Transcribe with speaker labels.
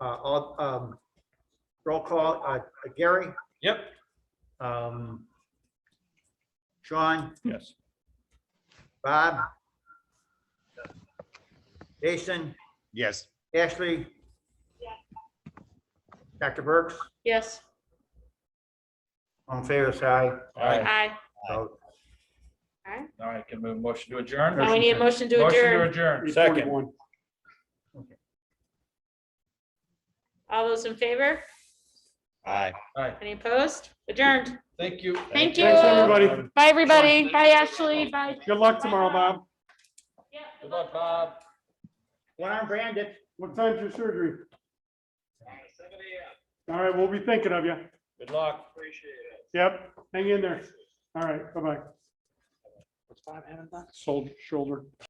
Speaker 1: Uh, all, um, roll call, uh, Gary,
Speaker 2: Yep.
Speaker 1: um, Sean,
Speaker 2: Yes.
Speaker 1: Bob, Jason,
Speaker 3: Yes.
Speaker 1: Ashley, Dr. Burks,
Speaker 4: Yes,
Speaker 1: on favor, say
Speaker 2: All right,
Speaker 4: aye.
Speaker 1: aye.
Speaker 2: all right, can move motion to adjourn.
Speaker 4: Now we need a motion to
Speaker 2: Motion to
Speaker 4: adjourn.
Speaker 2: adjourn, second.
Speaker 4: All those in favor?
Speaker 3: Aye.
Speaker 4: Any opposed? Adjourned.
Speaker 2: Thank you.
Speaker 4: Thank
Speaker 5: Thanks,
Speaker 4: you.
Speaker 5: everybody.
Speaker 4: Bye, everybody. Bye, Ashley. Bye.
Speaker 5: Good luck tomorrow, Bob.
Speaker 4: Yeah,
Speaker 2: Good luck, Bob.
Speaker 1: One arm bandit.
Speaker 5: What time's your surgery? All right, we'll be thinking of you.
Speaker 2: Good luck.
Speaker 5: Yep, hang in there. All right, bye-bye. What's Bob having done? Sold shoulder.